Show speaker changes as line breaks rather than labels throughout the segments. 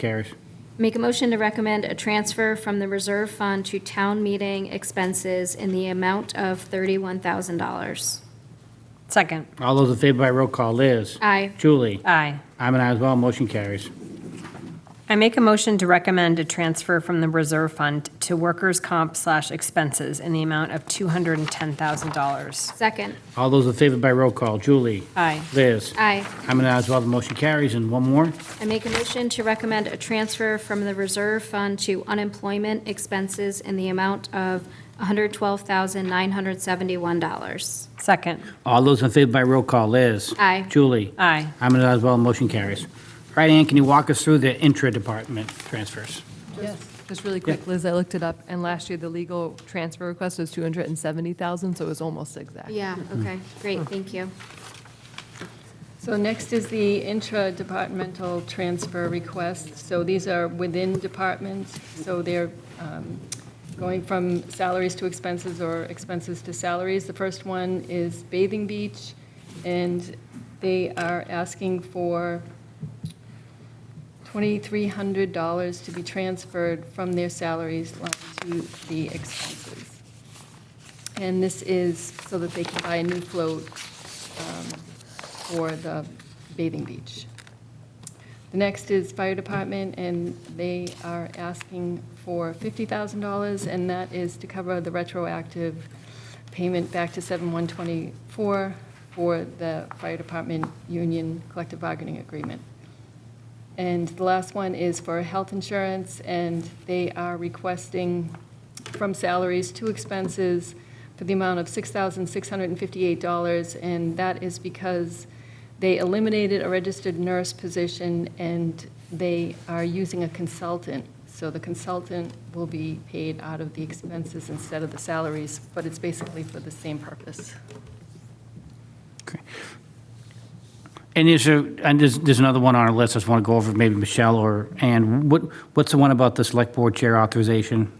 Carries.
Make a motion to recommend a transfer from the reserve fund to town meeting expenses in the amount of $31,000.
Second.
All those in favor by roll call, Liz.
Aye.
Julie.
Aye.
I'm an aye as well, motion carries.
I make a motion to recommend a transfer from the reserve fund to workers' comp slash expenses in the amount of $210,000.
Second.
All those in favor by roll call, Julie.
Aye.
Liz.
Aye.
I'm an aye as well, the motion carries. And one more.
I make a motion to recommend a transfer from the reserve fund to unemployment expenses in the amount of $112,971.
Second.
All those in favor by roll call, Liz.
Aye.
Julie.
Aye.
I'm an aye as well, motion carries. All right, Ann, can you walk us through the intra-department transfers?
Yes, just really quick, Liz, I looked it up, and last year, the legal transfer request was 270,000, so it was almost exact.
Yeah, okay, great, thank you.
So next is the intra-departmental transfer request. So these are within departments, so they're um, going from salaries to expenses or expenses to salaries. The first one is Bathing Beach, and they are asking for $2,300 to be transferred from their salaries line to the expenses. And this is so that they can buy a new float for the bathing beach. The next is fire department, and they are asking for $50,000, and that is to cover the retroactive payment back to 7124 for the fire department union collective bargaining agreement. And the last one is for health insurance, and they are requesting from salaries to expenses for the amount of $6,658, and that is because they eliminated a registered nurse position, and they are using a consultant. So the consultant will be paid out of the expenses instead of the salaries, but it's basically for the same purpose.
And is there, and there's, there's another one on our list I just want to go over, maybe Michelle or Ann. What, what's the one about the select board chair authorization?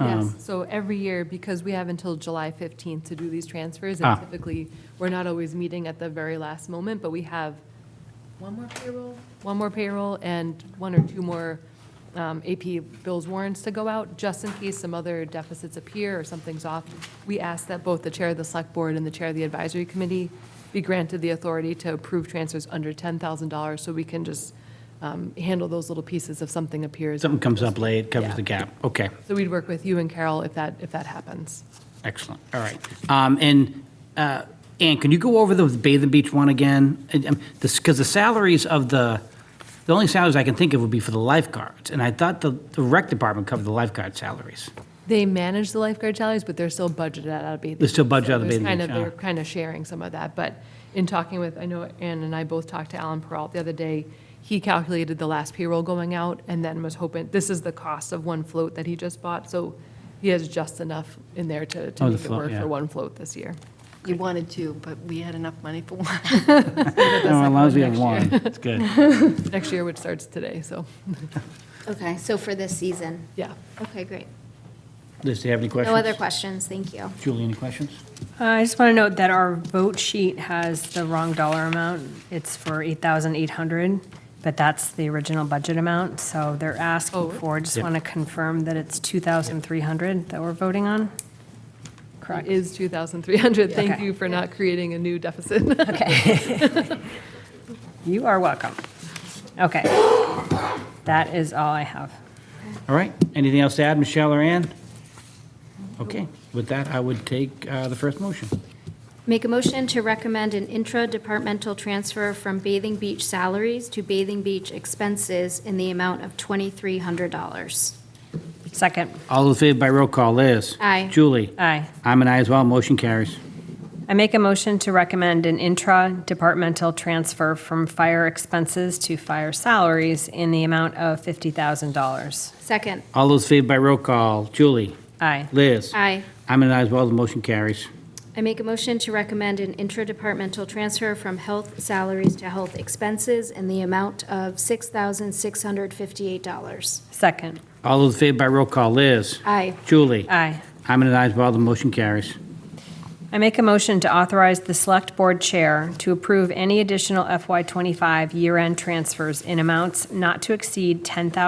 Yes, so every year, because we have until July 15th to do these transfers,
Ah.
and typically, we're not always meeting at the very last moment, but we have one more payroll, one more payroll, and one or two more um, AP bills warrants to go out, just in case some other deficits appear or something's off. We ask that both the chair of the select board and the chair of the advisory committee be granted the authority to approve transfers under $10,000, so we can just um, handle those little pieces if something appears.
Something comes up late, covers
Yeah.
the gap. Okay,
So we'd work with you and Carol if that, if that happens.
excellent, all right. Um, And uh, Ann, can you go over the Bathing Beach one again? Because the salaries of the, the only salaries I can think of would be for the lifeguards. And I thought the the rec department covered the lifeguard salaries.
They manage the lifeguard salaries, but they're still budgeted out of Bathing.
They're still
Beach.
budgeted
So
out of
there's
Bathing
kind
Beach,
of- They're
yeah.
kind of sharing some of that, but in talking with, I know Ann and I both talked to Alan Peralt the other day. He calculated the last payroll going out and then was hoping, this is the cost of one float that he just bought, so he has just enough in there to,
Oh,
to
the
make it
float,
work
yeah.
for one float this year.
You wanted two, but we had enough money for one.
No, allows
one
you to have
next
one. It's good.
Next year, which starts today, so,
Okay, so for this season?
yeah.
Okay, great.
Liz, do you have any questions?
No other questions, thank you.
Julie, any questions?
Uh, I just want to note that our vote sheet has the wrong dollar amount. It's for 8,800, but that's the original budget amount, so they're
Oh.
asking for, just
Yep.
want to confirm that it's 2,300 that we're voting on?
It is 2,300. Thank
Okay.
you for not creating a new deficit.
You are welcome. Okay. That is all I have.
All right, anything else to add, Michelle or Ann? Okay, with that, I would take uh, the first motion.
Make a motion to recommend an intra-departmental transfer from Bathing Beach salaries to Bathing Beach expenses in the amount of $2,300.
Second,
All in favor by roll call, Liz?
Aye.
Julie?
aye.
I'm an aye as well, motion carries.
I make a motion to recommend an intra-departmental transfer from fire expenses to fire salaries in the amount of $50,000.
Second.
All those in favor by roll call, Julie?
Aye.
Liz?
Aye.
I'm an aye as well, the motion carries.
I make a motion to recommend an intra-departmental transfer from health salaries to health expenses in the amount of $6,658.
Second,
All those in favor by roll call, Liz?
Aye.
Julie?
aye.
I'm an aye as well, the motion carries.
I make a motion to authorize the Select Board Chair to approve any additional FY25 year-end transfers in amounts not to exceed ten thousand.